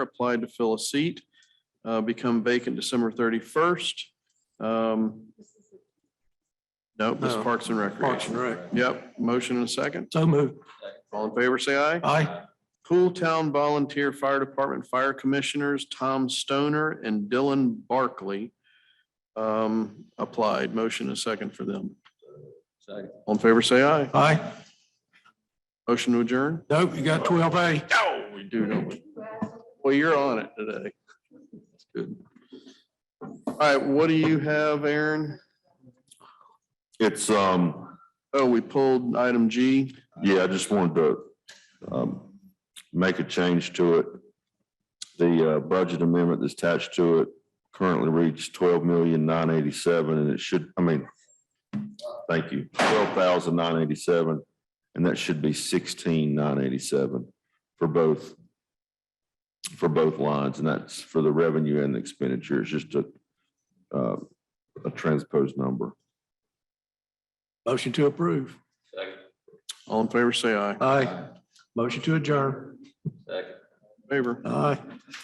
applied to fill a seat, uh, become vacant December thirty-first. Um, no, this is No. Parks and Oh. Parks Recreation. and Rec. Yep, motion and a second. So moved. All in favor, say aye. Aye. Pool Town Volunteer Fire Department Fire Commissioners Tom Stoner and Dylan Barkley um, applied. Motion and a second for them. All in favor, say aye. Aye. Motion to adjourn? Nope, you got twelve A. No, we do, don't we? Well, you're on it today. That's good. All right, what do you have, Aaron? It's, um, Oh, we pulled item G. yeah, I just wanted to, um, make a change to it. The, uh, budget amendment that's attached to it currently reads twelve million nine eighty-seven and it should, I mean, thank you, twelve thousand nine eighty-seven, and that should be sixteen nine eighty-seven for both, for both lines, and that's for the revenue and the expenditure. It's just a, uh, a transposed number. Motion to approve. All in favor, say aye. Aye. Motion to adjourn. Favor. Aye.